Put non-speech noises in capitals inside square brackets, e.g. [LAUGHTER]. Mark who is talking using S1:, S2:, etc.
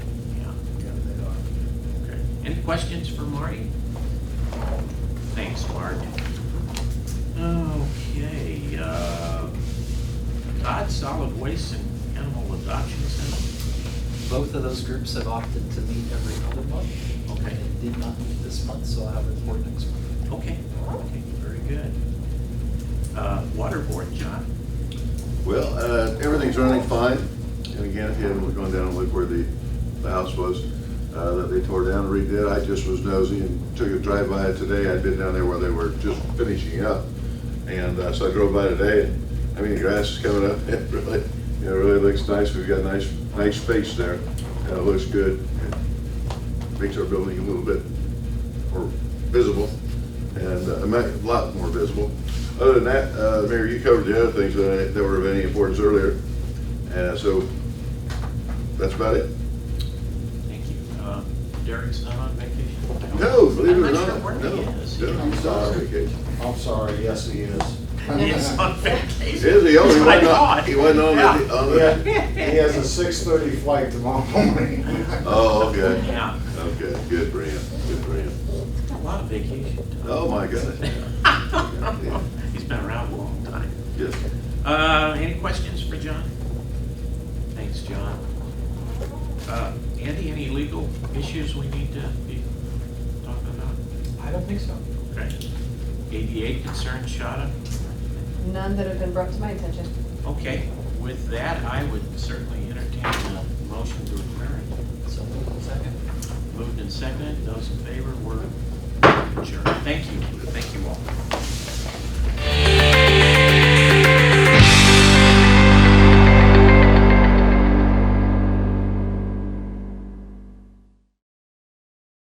S1: Any questions for Marty? Thanks, Mark. Okay, uh, Todd, Solid Waste and Animal Adoption Center,
S2: Both of those groups have opted to meet every other month.
S1: Okay.
S2: They did not meet this month, so I'll have a report next month.
S1: okay, okay, very good. Uh, Water Board, John?
S3: Well, uh, everything's running fine. And again, if you haven't gone down and looked where the, the house was, uh, that they tore down, and redid, I just was nosy and took a drive by it today. I'd been down there where they were just finishing up. And, uh, so I drove by today and, I mean, the grass is coming up. [LAUGHS] It really, it really looks nice. We've got a nice, nice space there. and It looks good. It Makes our building a little bit more visible and uh, ma- a lot more visible. Other than that, uh, Mayor, you covered the other things that I- that were of any importance earlier. And uh, so that's about it.
S1: Thank you. Uh, Derek's not on vacation? I don't-
S3: No, believe it or
S1: I'm not sure
S3: not,
S1: where
S3: no.
S1: he is.
S3: No, he's not on vacation.
S4: I'm sorry, yes, he is.
S1: He's on vacation.
S3: Is he? Oh, he
S1: It's my
S3: wasn't on,
S1: God.
S3: he wasn't on
S1: Yeah.
S3: the, on
S4: He
S3: the,
S4: had- he has a six-thirty flight tomorrow morning.
S3: oh, okay.
S1: Yeah,
S3: Okay, good for him, good for him.
S1: he's got a lot of vacation. [LAUGHS] time.
S3: Oh, my goodness.
S1: He's been around a long time.
S3: Yes.
S1: Uh, any questions for John? Thanks, John. Uh, Andy, any legal issues we need to be talking about?
S2: I don't think so.
S1: Okay. ADA concerns, Shada?
S5: None that have been brought to my attention.
S1: Okay, with that, I would certainly entertain a motion to adjourn.
S2: So, second.
S1: Moved and seconded, those in favor were adjourned. Thank you, thank you all.